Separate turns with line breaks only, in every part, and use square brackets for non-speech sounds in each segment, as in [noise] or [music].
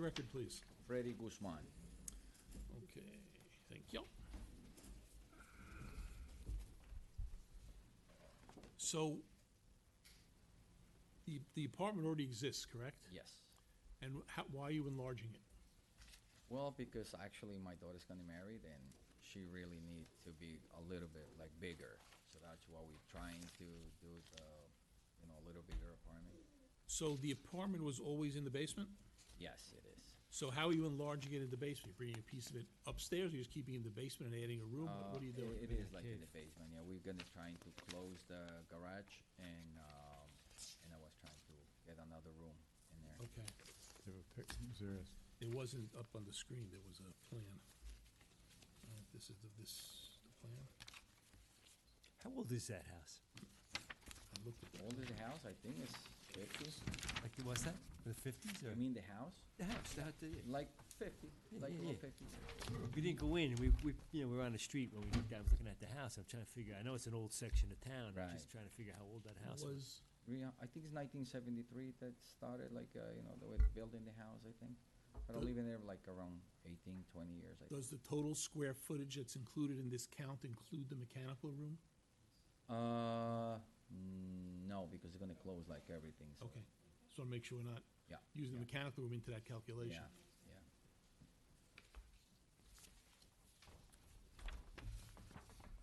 record, please.
Freddy Guzman.
Okay, thank you. So the, the apartment already exists, correct?
Yes.
And how, why are you enlarging it?
Well, because actually my daughter's gonna marry, then she really need to be a little bit like bigger. So that's why we're trying to do the, you know, a little bigger apartment.
So the apartment was always in the basement?
Yes, it is.
So how are you enlarging it in the basement? Bringing a piece of it upstairs, or you're just keeping it in the basement and adding a room? What- What are you
Uh,
doing?
It it is like in the basement, yeah. We're gonna trying to close the garage and, um, and I was trying to get another room in there.
Okay,
They have a pic- is there a-
it wasn't up on the screen, there was a plan. Uh, This is the, this, the plan?
How old is that house?
I looked at that.
Old is the house, I think it's fifty.
Like, what's that? The fifties or?
You mean the house?
The house, the house, yeah.
Like fifty,
Yeah,
like
yeah,
low
yeah.
fifty.
We didn't go in, we, we, you know, we were on the street when we looked down, I was looking at the house, I'm trying to figure, I know it's an old section of town, I'm
Right.
just trying to figure how old that house was.
Was,
Yeah, uh, I think it's nineteen seventy-three that started, like, uh, you know, the way they building the house, I think. But I
Does-
live in there like around 18, 20 years, I think.
does the total square footage that's included in this count include the mechanical room?
Uh, mm, no, because they're gonna close like everything, so.
Okay, so I make sure we're not
Yeah.
using the
yeah,
mechanical room into that calculation.
Yeah, yeah.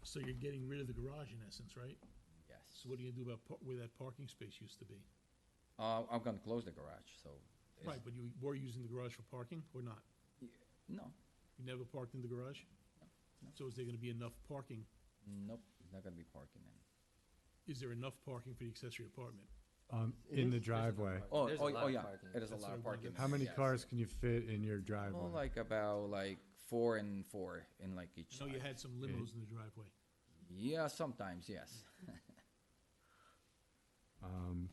So you're getting rid of the garage in essence, right?
Yes.
So what are you gonna do about par- where that parking space used to be?
Uh, I'm gonna close the garage, so. it's-
Right, but you were using the garage for parking or not?
No,
You never parked in the garage?
No.
So is there gonna be enough parking?
nope, it's not gonna be parking then.
Is there enough parking for the accessory apartment?
um, in the driveway?
Oh,
There's a
oh,
lot
oh,
of
yeah,
parking.
it is a
That's
lot
what I
of parking.
wondered.
How many
yes.
cars can you fit in your
Well,
driveway?
like about like four and four in like each
So you
side.
had some limos in the driveway.
Yeah, sometimes, yes.
Um,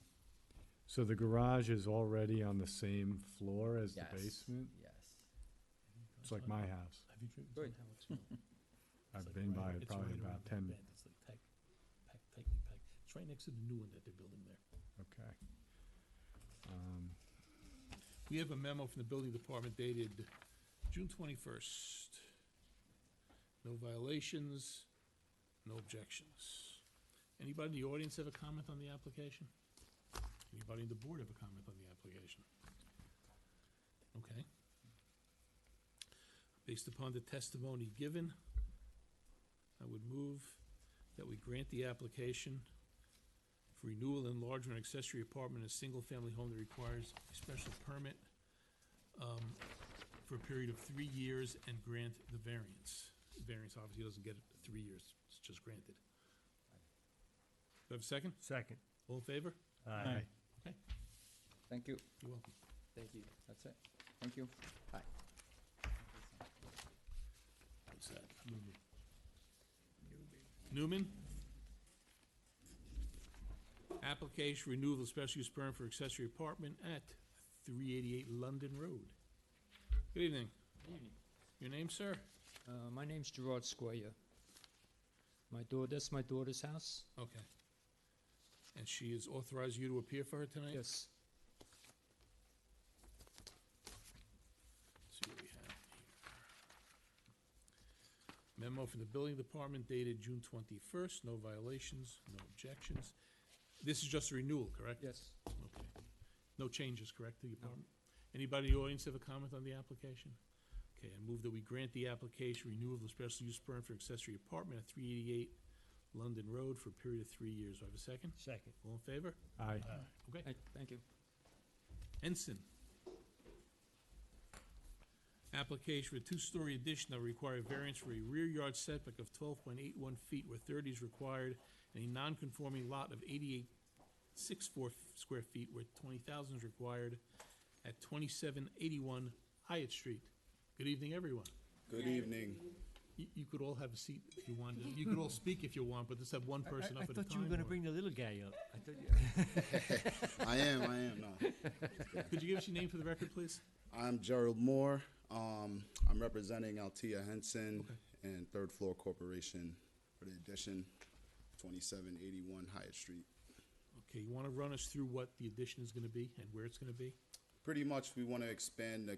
So the garage is already on the same floor as the
Yes,
basement?
Yes.
It's like my house.
Have you driven
Good.
down how it's built? It's
I've
like
been by
right-
it
it's
probably
right around
about
that
ten,
bend. It's like pack, pack, tightly packed. It's right next to the new one that they're building there.
okay. Um,
We have a memo from the building department dated June twenty-first. No violations, no objections. Anybody in the audience have a comment on the application? Anybody in the board have a comment on the application? Okay. Based upon the testimony given, I would move that we grant the application for renewal and enlargement of accessory apartment in a single-family home that requires a special permit um, for a period of three years and grant the variance. Variance obviously doesn't get it three years, it's just granted. Do I have a second?
Second.
All in favor?
Aye.
Okay,
Thank you.
you're welcome.
Thank you.
That's it. Thank you. Bye.
What's that? Newman? Application renewal of special use permit for accessory apartment at three eighty-eight London Road. Good evening. Your name, sir?
Uh, my name's Gerard Squire. My daughter, that's my daughter's house.
Okay. And she has authorized you to appear for her tonight?
Yes.
Let's see what we have here. Memo from the building department dated June twenty-first, no violations, no objections. This is just a renewal, correct?
Yes.
Okay. No changes, correct, to the apartment? Anybody in the audience have a comment on the application? Okay, I move that we grant the application renewal of the special use permit for accessory apartment at three eighty-eight London Road for a period of three years. Do I have a second?
Second.
All in favor?
aye.
Okay.
Hey, thank you.
Ensign. Application for a two-story addition that require a variance for a rear yard setback of twelve point eight one feet where thirty is required, and a non-conforming lot of eighty-eight six four square feet where twenty thousand is required at twenty-seven eighty-one Hyatt Street. Good evening, everyone.
Good evening.
You, you could all have a seat if you wanted. You could
[laughs]
all speak if you want, but just have one
I-
person
I, I
up at a time.
thought you were gonna
or-
bring the little guy up. I thought you,
I am, I am, no.
Could you give us your name for the record, please?
I'm Gerald Moore. Um, I'm representing Altia Henson and Third Floor Corporation for the addition, 2781 Hyatt Street.
Okay, you want to run us through what the addition is going to be and where it's going to be?
Pretty much, we want to expand the